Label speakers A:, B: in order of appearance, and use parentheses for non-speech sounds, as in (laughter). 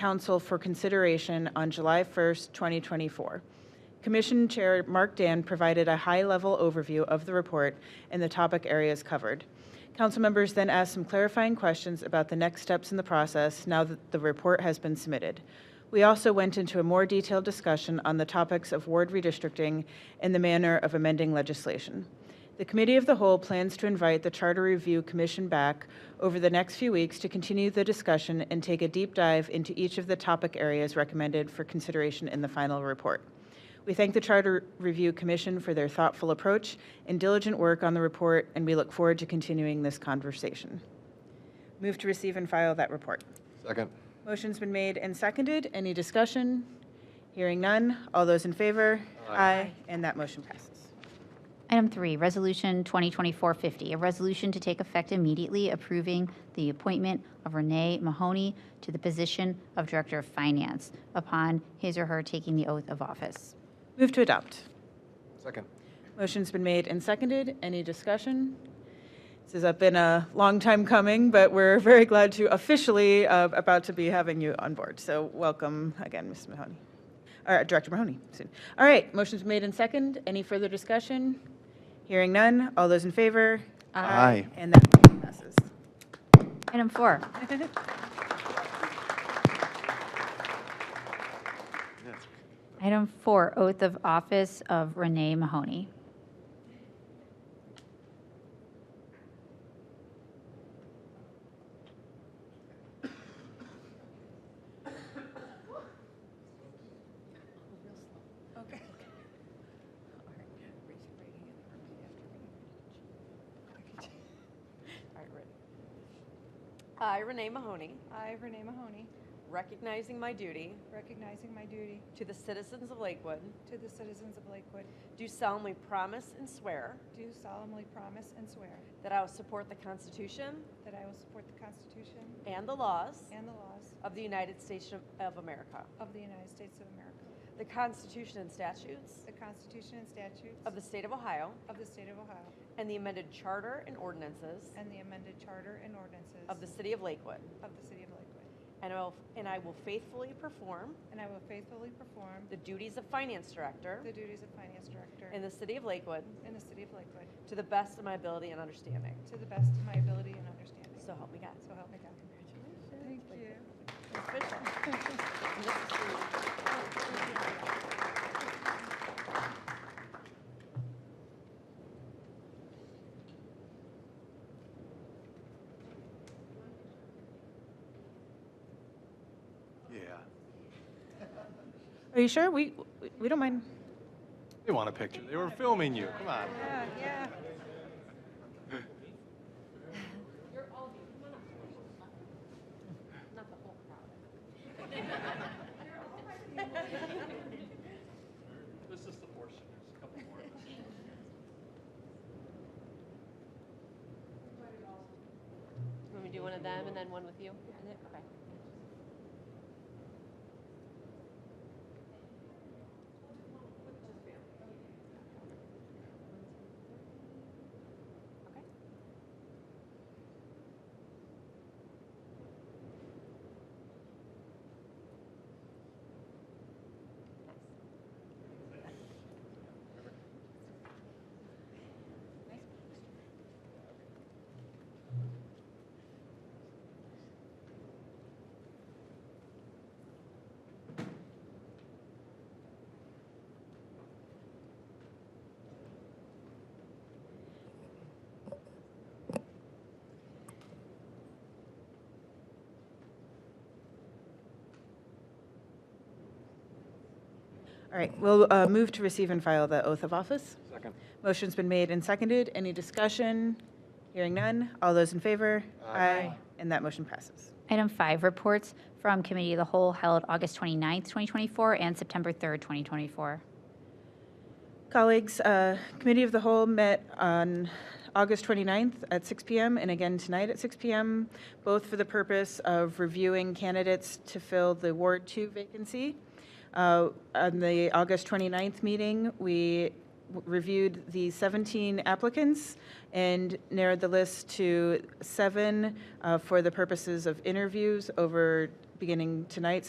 A: council for consideration on July 1st, 2024. Commission Chair Mark Dan provided a high-level overview of the report and the topic areas covered. Council members then asked some clarifying questions about the next steps in the process now that the report has been submitted. We also went into a more detailed discussion on the topics of ward redistricting and the manner of amending legislation. The Committee of the Whole plans to invite the Charter Review Commission back over the next few weeks to continue the discussion and take a deep dive into each of the topic areas recommended for consideration in the final report. We thank the Charter Review Commission for their thoughtful approach and diligent work on the report, and we look forward to continuing this conversation. Move to receive and file that report.
B: Second.
A: Motion's been made and seconded. Any discussion? Hearing none. All those in favor?
B: Aye.
A: And that motion passes.
C: Item three, Resolution 2024-50, a resolution to take effect immediately approving the appointment of Renee Mahoney to the position of Director of Finance upon his or her taking the oath of office.
A: Move to adopt.
B: Second.
A: Motion's been made and seconded. Any discussion? This has been a long time coming, but we're very glad to officially uh, about to be having you on board. So welcome again, Ms. Mahoney, or Director Mahoney. soon. All right, motion's made and second. Any further discussion? Hearing none. All those in favor?
B: Aye.
A: And that motion passes.
C: Item four, item four, oath of office of Renee Mahoney.
D: (laughs) I, Renee Mahoney,
E: I, Renee Mahoney,
D: recognizing my duty
E: recognizing my duty
D: to the citizens of Lakewood,
E: to the citizens of Lakewood,
D: do solemnly promise and swear
E: do solemnly promise and swear
D: that I will support the Constitution
E: that I will support the Constitution
D: and the laws
E: and the laws
D: of the United States of- of America,
E: of the United States of America,
D: the Constitution and statutes
E: the Constitution and statutes
D: of the State of Ohio,
E: of the State of Ohio,
D: and the amended charter and ordinances
E: and the amended Charter and ordinances
D: of the City of Lakewood,
E: of the City of Lakewood,
D: and I will- and I will faithfully perform
E: and I will faithfully perform
D: the duties of Finance Director
E: the duties of Finance Director
D: in the City of Lakewood
E: in the City of Lakewood
D: to the best of my ability and understanding.
E: to the best of my ability and understanding.
D: So help me God.
E: So help me God.
D: Congratulations.
E: Thank you.
D: Official.
B: Yeah.
A: Are you sure? We, we don't mind.
B: They want a picture. They were filming you. Come on.
E: Yeah, yeah.
F: This is the portion, there's a couple more.
D: Let me do one of them and then one with you? Is it? Okay. Okay.
A: All right, we'll uh, move to receive and file the oath of office.
B: Second.
A: Motion's been made and seconded. Any discussion? Hearing none. All those in favor?
B: Aye.
A: And that motion passes.
C: Item five, reports from Committee of the Whole held August 29th, 2024, and September 3rd, 2024.
A: Colleagues, uh, Committee of the Whole met on August 29th at 6 PM and again tonight at 6 PM, both for the purpose of reviewing candidates to fill the Ward 2 vacancy. Uh, On the August 29th meeting, we w- reviewed the 17 applicants and narrowed the list to seven uh, for the purposes of interviews over beginning tonight,